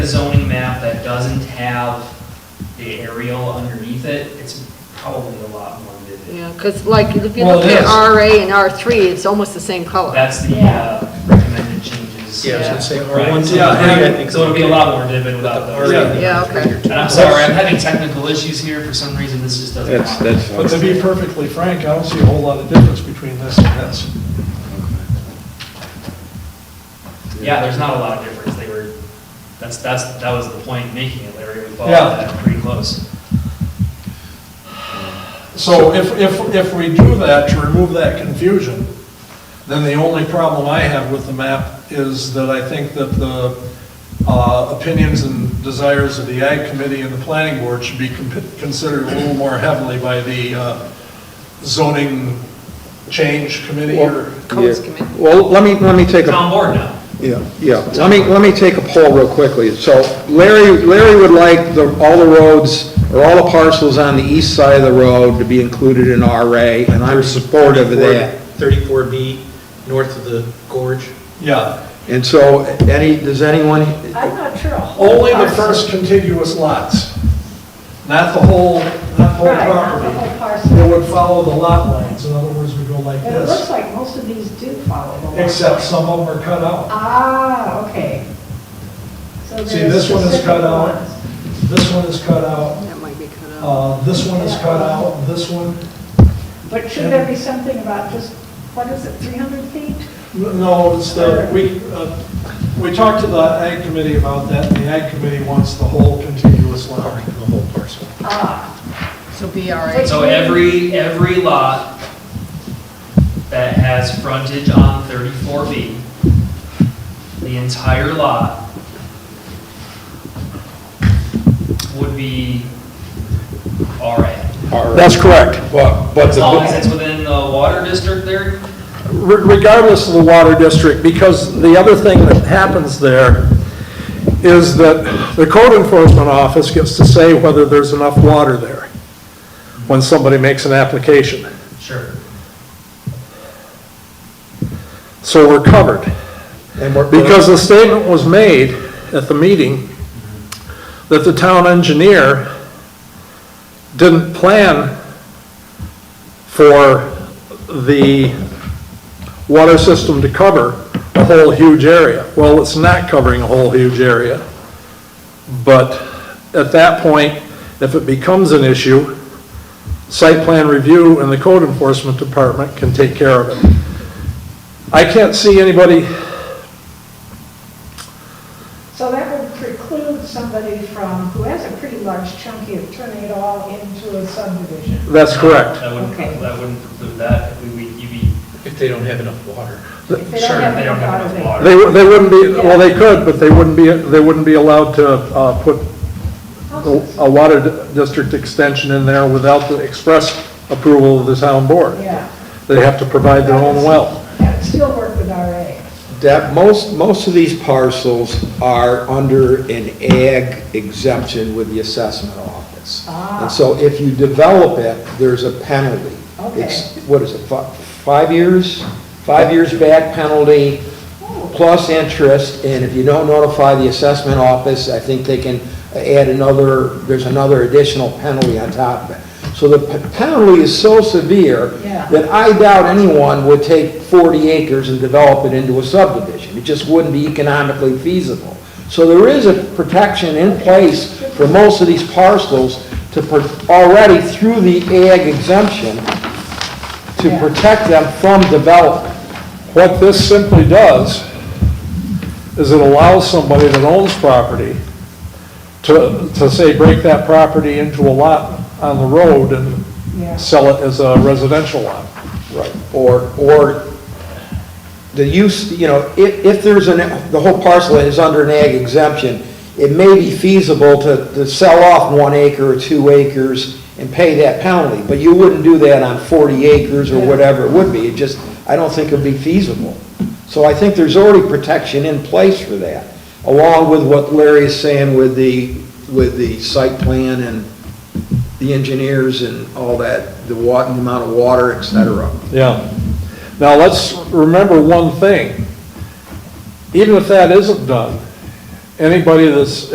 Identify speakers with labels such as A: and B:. A: a zoning map that doesn't have the aerial underneath it, it's probably a lot more vivid.
B: Yeah, because like, if you
C: Well,
B: look
C: it
B: at
C: is.
B: RA and R3, it's almost the same color.
A: That's the uh, recommended changes.
C: Yeah, I was gonna say,
A: Right,
C: R one, two, three,
A: yeah, and
C: I
A: I'm-
C: think.
A: So it'll be a lot more vivid without those.
C: Yeah.
B: Yeah, okay.
A: And I'm sorry, I'm having technical issues here, for some reason, this just doesn't.
D: That's,
A: work.
D: that's.
C: But to be perfectly frank, I don't see a whole lot of difference between this and this.
A: Yeah, there's not a lot of difference, they were, that's, that's, that was the point in making it, Larry, we followed
C: Yeah.
A: that pretty close.
C: So if, if, if we do that to remove that confusion, then the only problem I have with the map is that I think that the uh, opinions and desires of the Ag Committee and the Planning Board should be con- considered a little more heavily by the uh, zoning change committee or,
B: Codes
D: Yeah.
B: committee.
D: Well, let me, let me take
A: It's
D: a,
A: on board now.
D: yeah, yeah, let me, let me take a poll real quickly. So Larry, Larry would like the, all the roads, or all the parcels on the east side of the road to be included in RA, and I'm supportive of that.
E: 34B, north of the gorge.
C: yeah.
D: And so, any, does anyone,
F: I'm not sure a whole
C: Only the
F: parcel.
C: first contiguous lots, not the whole, not the whole
F: Right, not the
C: property.
F: whole parcel.
C: It would follow the lot lines, in other words, we go like
F: But it looks
C: this,
F: like most of these do follow the law.
C: except some of them are cut out.
F: Ah, okay. So
C: See,
F: there's
C: this one is
F: specific
C: cut out.
F: ones.
C: This one is cut out,
B: That might be cut out.
C: uh, this one is cut out, this one,
F: But should there be something about just, what is it, 300 feet?
C: no, it's the, we, uh, we talked to the ag committee about that, and the ag committee wants the whole contiguous lot.
E: The whole parcel.
F: Ah,
B: So BRA.
A: So every, every lot that has frontage on 34B, the entire lot would be RA.
G: That's correct, but, but
A: As long as
G: the-
A: it's within the water district there,
G: regardless of the water district, because the other thing that happens there is that the code enforcement office gets to say whether there's enough water there when somebody makes an application.
A: sure.
G: So we're covered.
D: and we're-
G: Because the statement was made at the meeting that the town engineer didn't plan for the water system to cover a whole huge area. Well, it's not covering a whole huge area. But at that point, if it becomes an issue, site plan review and the code enforcement department can take care of it. I can't see anybody
F: so that would preclude somebody from, who has a pretty large chunky of turning it all into a subdivision.
G: That's correct.
A: That wouldn't,
F: Okay.
A: that wouldn't preclude that, we, we, you'd be,
E: If they don't have enough water.
F: If
A: sure, if they don't have
F: water,
A: enough
F: they-
A: water.
G: They, they wouldn't be, well, they could, but they wouldn't be, they wouldn't be allowed to uh, put
F: Houses.
C: Oh,
G: a water di- district extension in there without the express approval of the town
C: oh.
G: board.
F: Yeah.
G: They have to provide their own well.
F: That would still work with RA.
D: That, most, most of these parcels are under an ag exemption with the assessment office.
F: Ah.
D: And so if you develop it, there's a penalty. It's, what is it, fi- five years? Five years back penalty plus interest, and if you don't notify the assessment office, I think they can add another, there's another additional penalty on top of it. So the p- penalty is so severe
F: Yeah.
D: that I doubt anyone would take 40 acres and develop it into a subdivision. It just wouldn't be economically feasible. So there is a protection in place for most of these parcels to, pr- already through the ag exemption, to
F: Yeah.
D: protect them from development.
G: What this simply does is it allows somebody that owns property to, to say, break that property into a lot on the road
F: Yeah.
G: and sell it as a residential lot.
D: Right, or, or the use, you know, if, if there's an, the whole parcel is under an ag exemption, it may be feasible to, to sell off one acre or two acres and pay that penalty, but you wouldn't do that on 40 acres or whatever it would be, it just, I don't think it'd be feasible. So I think there's already protection in place for that, along with what Larry is saying with the, with the site plan and the engineers and all that, the wa, the amount of water, et cetera.
G: Yeah. Now, let's remember one thing. Even if that isn't done, anybody that's